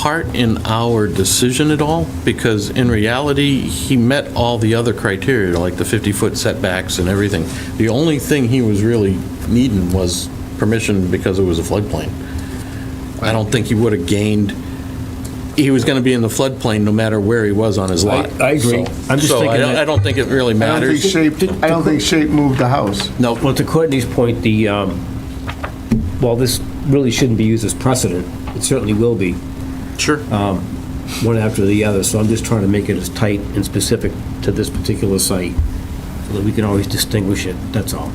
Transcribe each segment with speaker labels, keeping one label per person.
Speaker 1: part in our decision at all? Because in reality, he met all the other criteria, like the 50-foot setbacks and everything. The only thing he was really needing was permission because it was a floodplain. I don't think he would have gained, he was going to be in the floodplain no matter where he was on his lot.
Speaker 2: I- I agree.
Speaker 1: So-
Speaker 2: I'm just
Speaker 1: so I
Speaker 2: thinking
Speaker 1: don't-
Speaker 2: that-
Speaker 1: I don't think it really
Speaker 3: I don't
Speaker 1: matters.
Speaker 3: think shape, I don't think shape moved the house.
Speaker 1: No.
Speaker 2: Uh, Well, to Courtney's point, the, um, while this really shouldn't be used as precedent, it certainly will be,
Speaker 1: Sure.
Speaker 2: one after the other, so I'm just trying to make it as tight and specific to this particular site, so that we can always distinguish it, that's all.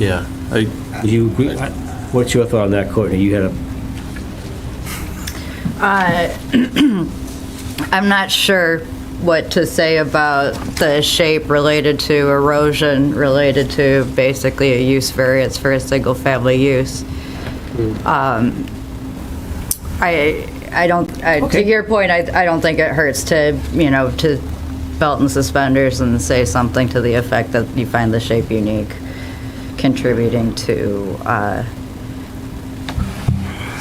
Speaker 1: Yeah. I-
Speaker 2: Do you agree? What's your thought on that, Courtney? You had a,
Speaker 4: Uh, I'm not sure what to say about the shape related to erosion, related to basically a use variance for a single-family use.
Speaker 2: Hmm.
Speaker 4: Um, I, I don't, I- to
Speaker 2: Okay.
Speaker 4: your point, I, I don't think it hurts to, you know, to belt and suspenders and say something to the effect that you find the shape unique, contributing to uh,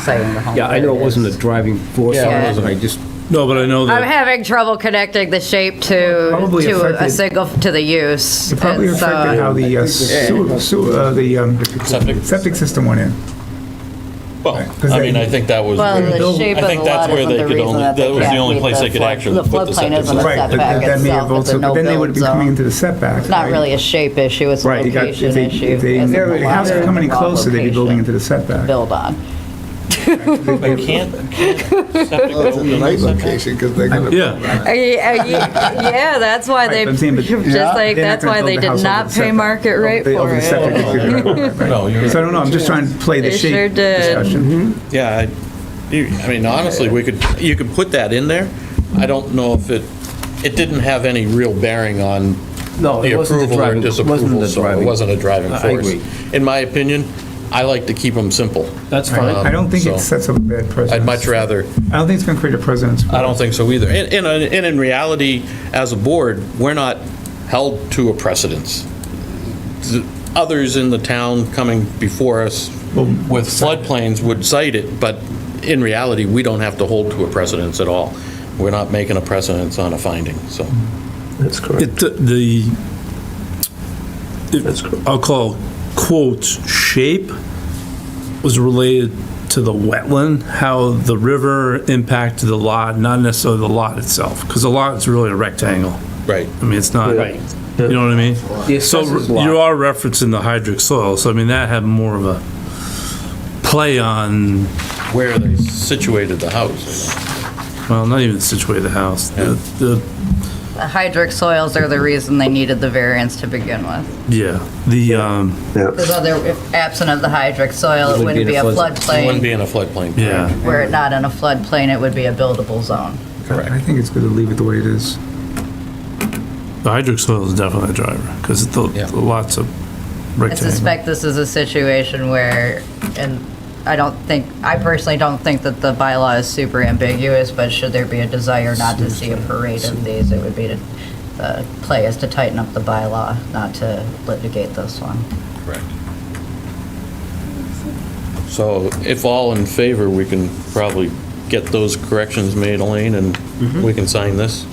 Speaker 4: saying the home.
Speaker 2: yeah, I know it wasn't a driving force, on
Speaker 4: Yeah.
Speaker 2: it, I just,
Speaker 5: No, but I know
Speaker 4: I'm
Speaker 5: that,
Speaker 4: having trouble connecting the shape to,
Speaker 6: Probably
Speaker 4: to a
Speaker 6: affected-
Speaker 4: single, to the use.
Speaker 6: It probably
Speaker 4: It's,
Speaker 6: affected
Speaker 4: uh,
Speaker 6: how the uh, sewer, sewer- uh, the um,
Speaker 1: Septic.
Speaker 6: septic system went in.
Speaker 1: Well,
Speaker 6: Because
Speaker 1: I
Speaker 6: they-
Speaker 1: mean, I think that was.
Speaker 4: Well,
Speaker 1: where-
Speaker 4: the shape
Speaker 1: I
Speaker 4: of the
Speaker 1: think that's
Speaker 4: lot
Speaker 1: where
Speaker 4: isn't
Speaker 1: they
Speaker 4: the
Speaker 1: could
Speaker 4: reason
Speaker 1: only-
Speaker 4: that they
Speaker 1: That was the
Speaker 4: can't
Speaker 1: only
Speaker 4: meet
Speaker 1: place they could
Speaker 4: flood-
Speaker 1: actually put the
Speaker 4: The floodplain
Speaker 1: septic
Speaker 4: isn't a
Speaker 1: system.
Speaker 6: Right, but
Speaker 4: setback
Speaker 6: that that may
Speaker 4: itself,
Speaker 6: have
Speaker 4: it's a
Speaker 6: also, but then they
Speaker 4: no-build
Speaker 6: would have been coming
Speaker 4: zone.
Speaker 6: into the setback.
Speaker 4: It's not really a shape issue, it's a
Speaker 6: Right, you got, if
Speaker 4: location
Speaker 6: they,
Speaker 4: issue.
Speaker 6: if they,
Speaker 4: It's
Speaker 6: if
Speaker 4: a
Speaker 6: the house
Speaker 4: lot
Speaker 6: was coming in
Speaker 4: of
Speaker 6: closer, they'd be building into the
Speaker 4: location to
Speaker 6: setback.
Speaker 4: Build on.
Speaker 1: But can't, can't septic go in the septic?
Speaker 3: because they're gonna.
Speaker 5: yeah,
Speaker 4: Uh, Yeah, that's why
Speaker 6: Right,
Speaker 4: they,
Speaker 6: but I'm saying, but they're
Speaker 4: just
Speaker 6: not
Speaker 4: like,
Speaker 6: gonna
Speaker 4: that's why
Speaker 6: build
Speaker 4: they
Speaker 6: the
Speaker 4: did
Speaker 6: house over
Speaker 4: not
Speaker 6: the
Speaker 4: pay
Speaker 6: setback.
Speaker 4: market rate
Speaker 6: They-
Speaker 4: for
Speaker 6: over the septic,
Speaker 4: it.
Speaker 6: they could- right, right, right.
Speaker 1: No, you're
Speaker 6: So I don't know, I'm just trying to play the
Speaker 4: They sure
Speaker 6: shape
Speaker 4: did.
Speaker 1: Mm-hmm.
Speaker 6: discussion.
Speaker 1: Yeah, I you- I mean, honestly, we could, you could put that in there. I don't know if it, it didn't have any real bearing on
Speaker 2: No, it
Speaker 1: the
Speaker 2: wasn't
Speaker 1: approval
Speaker 2: the
Speaker 1: or
Speaker 2: driving- wasn't
Speaker 1: disapproval,
Speaker 2: the
Speaker 1: so it
Speaker 2: driving-
Speaker 1: wasn't a driving
Speaker 2: I
Speaker 1: force.
Speaker 2: agree.
Speaker 1: In my opinion, I like to keep them simple. Um,
Speaker 2: that's
Speaker 6: I
Speaker 2: fine.
Speaker 6: don't think
Speaker 1: So-
Speaker 6: it sets up a bad precedent.
Speaker 1: I'd much rather, Ah,
Speaker 6: I don't think it's going to create a precedent.
Speaker 1: I don't think so either. And, and- and in reality, as a board, we're not held to a precedence. Others in the town coming before us with floodplains would cite it, but in reality, we don't have to hold to a precedence at all. We're not making a precedence on a finding, so.
Speaker 7: That's correct.
Speaker 5: it, uh, the,
Speaker 7: That's correct.
Speaker 5: I'll call quotes, shape was related to the wetland, how the river impacted the lot, not necessarily the lot itself, because the lot is really a rectangle.
Speaker 1: Right.
Speaker 5: I mean, it's not,
Speaker 2: Right.
Speaker 5: you know what I mean?
Speaker 2: The
Speaker 5: So
Speaker 2: assessor's
Speaker 5: you
Speaker 2: lot,
Speaker 5: are referencing the hydric soil, so I mean, that had more of a play on,
Speaker 1: Where they situated the house.
Speaker 5: well, not even situated the house, the, the-
Speaker 4: The Hydric soils are the reason they needed the variance to begin with.
Speaker 5: yeah, the, um,
Speaker 4: Because
Speaker 7: Yeah.
Speaker 4: other, if absent of the hydric soil, it
Speaker 2: It would
Speaker 4: wouldn't
Speaker 2: be
Speaker 4: be a
Speaker 2: in a flood-
Speaker 1: It wouldn't
Speaker 4: floodplain.
Speaker 1: be in a floodplain.
Speaker 5: yeah.
Speaker 4: Were it not in a floodplain, it would be a buildable zone.
Speaker 6: I think it's good to leave it the way it is.
Speaker 5: The hydric soil is definitely a driver, because the
Speaker 1: Yeah.
Speaker 5: the lots of
Speaker 4: I
Speaker 5: rectangle.
Speaker 4: suspect this is a situation where, and I don't think, I personally don't think that the bylaw is super ambiguous, but should there be a desire not to see a parade of these, it would be to, the play is to tighten up the bylaw, not to litigate this one.
Speaker 1: Correct. So if all in favor, we can probably get those corrections made, Elaine, and
Speaker 5: Mm-hmm.
Speaker 1: we can sign this?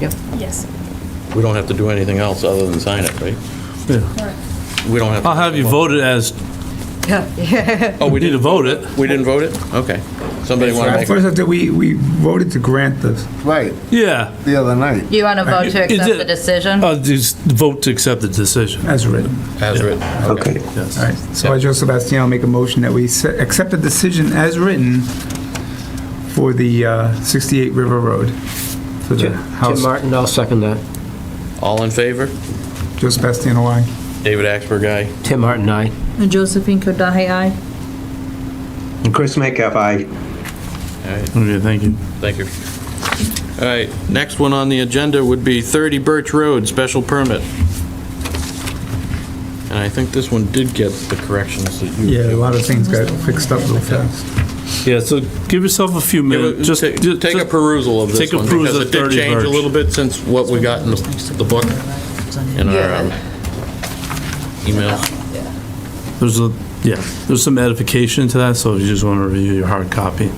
Speaker 8: Yes.
Speaker 1: We don't have to do anything else other than sign it, right?
Speaker 5: Yeah.
Speaker 1: We don't have. to-
Speaker 5: I'll have you vote it as,
Speaker 1: Oh,
Speaker 5: we
Speaker 1: we
Speaker 5: need to
Speaker 1: didn't,
Speaker 5: vote it.
Speaker 1: we didn't vote it? Okay. Somebody want to make,
Speaker 6: First, I think we, we voted to grant this.
Speaker 3: Right,
Speaker 5: Yeah,
Speaker 3: the other night.
Speaker 4: You want to vote to
Speaker 5: Is
Speaker 4: accept
Speaker 5: it-
Speaker 4: the decision?
Speaker 5: I'll just vote to accept the decision.
Speaker 6: As written.
Speaker 1: as written?
Speaker 7: Okay.
Speaker 6: All right, so I, Joe Sebastiano, make a motion that we se- accept the decision as written for the uh, 68 River Road, for the
Speaker 2: Tim
Speaker 6: house.
Speaker 2: Martin, I'll second that.
Speaker 1: All in favor?
Speaker 6: Joe Sebastiano, aye.
Speaker 1: David Axberg, aye.
Speaker 2: Tim Martin, aye.
Speaker 5: Uh,
Speaker 8: And Josephine Kodahay, aye.
Speaker 7: Chris Metcalf, aye.
Speaker 1: All right,
Speaker 5: Okay, thank you.
Speaker 1: thank you. All right, next one on the agenda would be 30 Birch Road, special permit. And I think this one did get the corrections that you.
Speaker 6: Yeah, a lot of things got fixed up real fast.
Speaker 5: Yeah, so give yourself a few
Speaker 1: Give
Speaker 5: minutes,
Speaker 1: a-
Speaker 5: just.
Speaker 1: Take
Speaker 5: ju-
Speaker 1: take a
Speaker 5: just-
Speaker 1: perusal of this
Speaker 5: take a
Speaker 1: one,
Speaker 5: peruse
Speaker 1: because
Speaker 5: of
Speaker 1: it did
Speaker 5: 30
Speaker 1: change a
Speaker 5: Birch.
Speaker 1: little bit since what we
Speaker 5: Uh,
Speaker 1: got in the the book, in our um, email.
Speaker 5: There's a, yeah, there's some edification to that, so if you just want to review your hard copy.